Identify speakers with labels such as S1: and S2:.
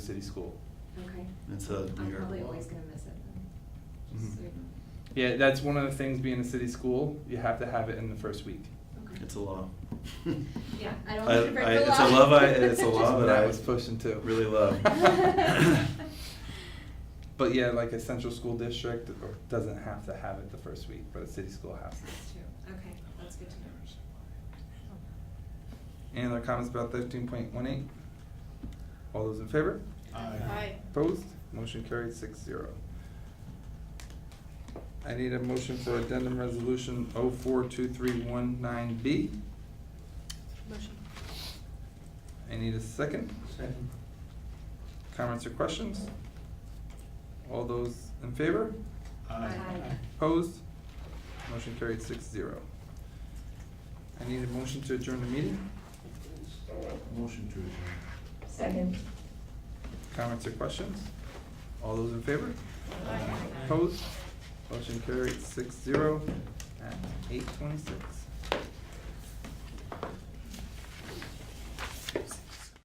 S1: city school.
S2: Okay.
S1: It's a
S2: I'm
S1: weird
S2: probably
S1: wall.
S2: always gonna miss it then. Just so
S1: Mhm.
S2: you know.
S1: Yeah, that's one of the things being a city school, you have to have it in the first week.
S2: Okay.
S3: Mm-hmm. It's a law.
S2: Yeah, I don't want you to break the
S3: It's a
S2: law.
S3: love, I, it's a law
S2: Love
S3: that
S1: That
S3: I
S1: was pushing too.
S3: Really love.
S1: But yeah, like a central school district or- doesn't have to have it the first week, but a city school has to.
S2: That's true. Okay, that's good to know.
S1: Any other comments about thirteen point one eight? All those in favor?
S4: Aye.
S1: Opposed? Motion carried six zero. I need a motion for addendum resolution oh four two three one nine B.
S4: Motion.
S1: I need a second.
S5: Second.
S1: Comments or questions? All those in favor?
S2: Aye.
S1: Opposed? Motion carried six zero. I need a motion to adjourn the meeting.
S5: Motion to adjourn.
S2: Second.
S1: Comments or questions? All those in favor?
S4: Aye.
S1: Opposed? Motion carried six zero at eight twenty-six.